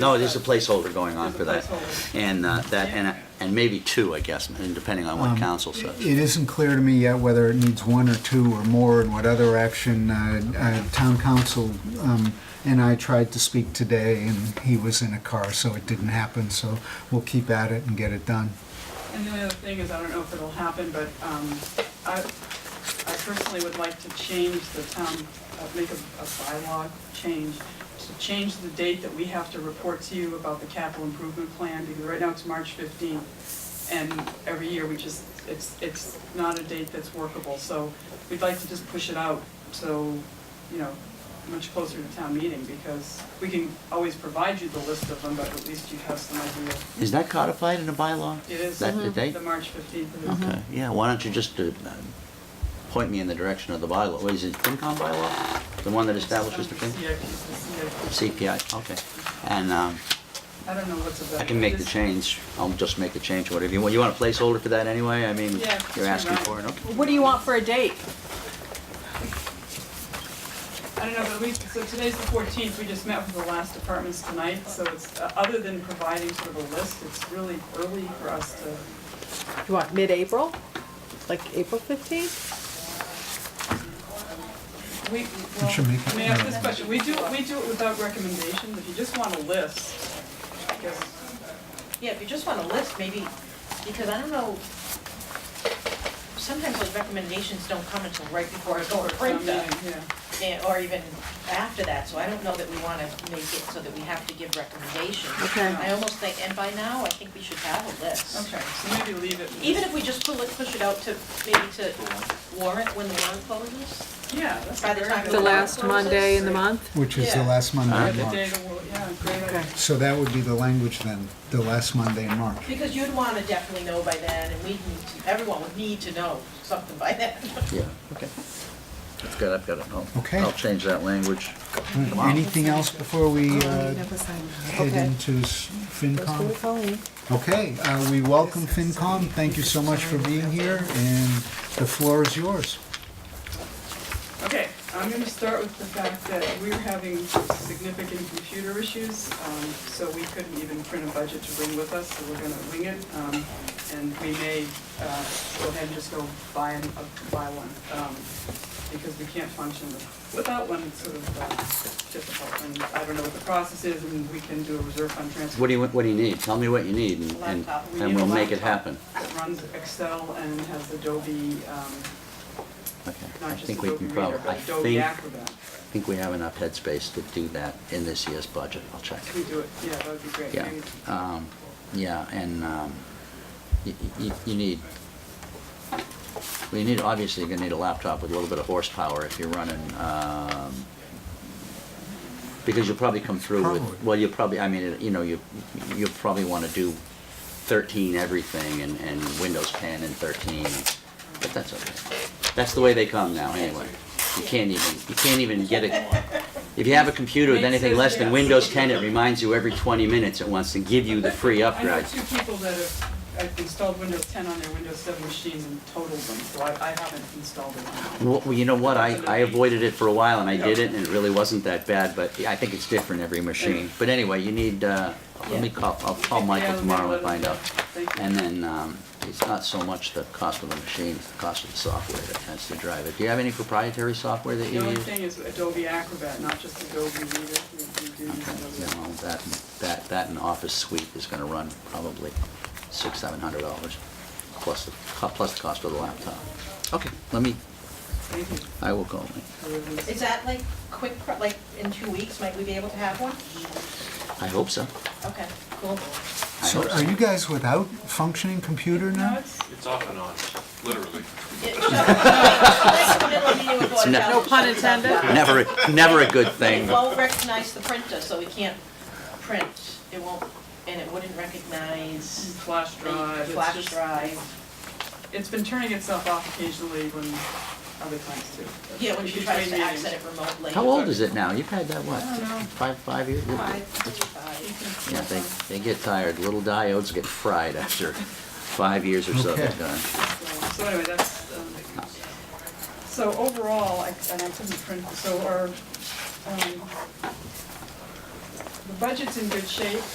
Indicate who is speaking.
Speaker 1: No, there's a placeholder going on for that.
Speaker 2: placeholder.
Speaker 1: And uh, that, and, and maybe two, I guess, and depending on what council says.
Speaker 3: It isn't clear to me yet whether it needs one or two or more, and what other action. uh, uh, Town council um, and I tried to speak today, and he was in a car, so it didn't happen, so we'll keep at it and get it done.
Speaker 2: And the other thing is, I don't know if it'll happen, but um, I I personally would like to change the town, uh, make a a bylaw change, to change the date that we have to report to you about the capital improvement plan, because right now it's March 15th, and every year we just, it's, it's not a date that's workable, so we'd like to just push it out, so, you know, much closer to town meeting, because we can always provide you the list of them, but at least you have some idea.
Speaker 1: Is that codified in a bylaw?
Speaker 2: It is. uh-huh. Mm-hmm.
Speaker 1: That the date?
Speaker 2: The March 15th.
Speaker 1: Okay, yeah, why don't you just uh, point me in the direction of the bylaw? What is it, FinCom bylaw? The one that establishes the thing?
Speaker 2: CIP, the CIP.
Speaker 1: CPI, okay. And um,
Speaker 2: I don't know what's about.
Speaker 1: I can make the
Speaker 2: This-
Speaker 1: change, I'll just make the change, whatever you want. You want a placeholder for that anyway? I mean,
Speaker 2: Yeah, if
Speaker 1: you're
Speaker 2: it's
Speaker 1: asking
Speaker 2: around.
Speaker 1: for it, okay?
Speaker 4: What do you want for a date?
Speaker 2: I don't know, but we, so today's the 14th, we just met with the last departments tonight, so it's, uh, other than providing sort of a list, it's really early for us to,
Speaker 4: You want mid-April? Like April 15th?
Speaker 2: we,
Speaker 3: should make
Speaker 2: well,
Speaker 3: it-
Speaker 2: may I ask this question? We do, we do it without recommendations, if you just want a list, I guess,
Speaker 5: Yeah, if you just want a list, maybe, because I don't know, sometimes those recommendations don't come until right before I go to print them,
Speaker 2: um, yeah.
Speaker 5: eh, or even after that, so I don't know that we want to make it so that we have to give recommendations.
Speaker 4: Okay.
Speaker 5: I almost think, and by now, I think we should have a list.
Speaker 2: Okay, so maybe leave it.
Speaker 5: Even if we just pull it, push it out to, maybe to warrant when the warrant closes,
Speaker 2: Yeah, that's
Speaker 5: by the time
Speaker 2: very
Speaker 5: the
Speaker 4: The
Speaker 2: good-
Speaker 4: last Monday in the month?
Speaker 3: Which is the
Speaker 5: Yeah.
Speaker 3: last Monday
Speaker 2: Yeah,
Speaker 3: in
Speaker 2: the
Speaker 1: Uh-huh.
Speaker 2: day
Speaker 3: March.
Speaker 2: the, war- yeah, great idea.
Speaker 4: Okay.
Speaker 3: So that would be the language then, the last Monday in March.
Speaker 5: because you'd want to definitely know by then, and we, need to- everyone would need to know something by then.
Speaker 1: Yeah, okay. That's good, I've got it. I'll-
Speaker 3: Okay. Hmm.
Speaker 1: I'll change that language. Wow.
Speaker 3: Anything else before we uh, head
Speaker 4: Okay.
Speaker 3: into s- FinCom?
Speaker 4: Colleen.
Speaker 3: Okay, uh, we welcome FinCom. Thank you so much for being here, and the floor is yours.
Speaker 2: Okay, I'm gonna start with the fact that we're having significant computer issues, um, so we couldn't even print a budget to bring with us, so we're gonna wing it. um, And we may, uh, go ahead and just go buy an, uh, buy one, um, because we can't function without one, it's sort of, uh, difficult. And I don't know what the process is, and we can do a reserve fund transfer.
Speaker 1: What do you, what do you need? Tell me what you need, and- and,
Speaker 5: Laptop.
Speaker 2: We
Speaker 1: and
Speaker 2: need a
Speaker 1: we'll make it
Speaker 2: laptop
Speaker 1: happen.
Speaker 2: That runs Excel and has Adobe, um,
Speaker 1: Okay. I
Speaker 2: not just
Speaker 1: think we
Speaker 2: Adobe
Speaker 1: can
Speaker 2: Reader,
Speaker 1: probably, I
Speaker 2: but Adobe
Speaker 1: think,
Speaker 2: Acrobat.
Speaker 1: think we have enough headspace to do that in this year's budget. I'll check.
Speaker 2: We do it, yeah, that would be great.
Speaker 1: Yeah,
Speaker 2: Maybe-
Speaker 1: um, yeah, and, um, you, you, you need, we need, obviously, you're gonna need a laptop with a little bit of horsepower if you're running, um, because you'll probably come through
Speaker 3: Probably.
Speaker 1: with, well, you'll probably, I mean, you know, you, you'll probably wanna do thirteen everything and, and Windows ten and thirteen, but that's okay. That's the way they come now, anyway. You can't even, you can't even get a, if you have a computer with
Speaker 2: Makes
Speaker 1: anything
Speaker 2: sense,
Speaker 1: less than
Speaker 2: yeah.
Speaker 1: Windows ten, it reminds you every twenty minutes it wants to give you the free
Speaker 2: I
Speaker 1: upgrade.
Speaker 2: know two people that have I've installed Windows 10 on their Windows 7 machines and totaled them, so I, I haven't installed it on mine.
Speaker 1: Well, you know what, I, I avoided it for a while and I did it and it really wasn't that bad, but I think it's different every machine. But anyway, you need, uh, let me call, I'll call
Speaker 2: Yeah,
Speaker 1: Michael
Speaker 2: let me
Speaker 1: tomorrow and
Speaker 2: let him
Speaker 1: find
Speaker 2: know.
Speaker 1: out.
Speaker 2: Thank you.
Speaker 1: And then, um, it's not so much the cost of the machine, it's the cost of the software that tends to drive it. Do you have any proprietary software that
Speaker 2: The
Speaker 1: you
Speaker 2: only
Speaker 1: use?
Speaker 2: thing is Adobe Acrobat, not just Adobe Reader, we we do use
Speaker 1: You
Speaker 2: Adobe.
Speaker 1: know, that, that, that and Office Suite is gonna run probably six, seven hundred dollars, plus, the co- plus the cost of the laptop. Okay, let me,
Speaker 2: Thank you.
Speaker 1: I will call him.
Speaker 2: I will use-
Speaker 5: Is that like quick, pro- like in two weeks, might we be able to have one?
Speaker 1: I hope so.
Speaker 5: Okay, cool.
Speaker 1: I
Speaker 3: So
Speaker 1: hope
Speaker 3: are you guys without functioning computer
Speaker 2: No,
Speaker 3: now?
Speaker 2: it's,
Speaker 6: It's off and on, literally.
Speaker 5: It- so, like, middle of meeting with Board of
Speaker 1: No-
Speaker 5: Health,
Speaker 1: No
Speaker 5: it
Speaker 4: pun
Speaker 5: shuts down.
Speaker 4: intended.
Speaker 1: Never, a- never a good
Speaker 5: It
Speaker 1: thing.
Speaker 5: won't recognize the printer, so we can't print. It won't, and it wouldn't recognize
Speaker 2: flash
Speaker 5: the
Speaker 2: drive, it's
Speaker 5: flash
Speaker 2: just-
Speaker 5: drive.
Speaker 2: It's been turning itself off occasionally when other times too.
Speaker 5: Yeah, when she
Speaker 2: Between
Speaker 5: tries to
Speaker 2: meetings.
Speaker 5: access it remotely.
Speaker 1: How old is it now? You've had that, what?
Speaker 2: I don't know.
Speaker 1: Five, five years?
Speaker 5: Five, five.
Speaker 1: Yeah, they, they get tired. Little diodes get fried after five years or so. they're
Speaker 3: Okay.
Speaker 1: done.
Speaker 2: So anyway, that's, um, so overall, I- and I couldn't print, so our, um, the budget's in good shape,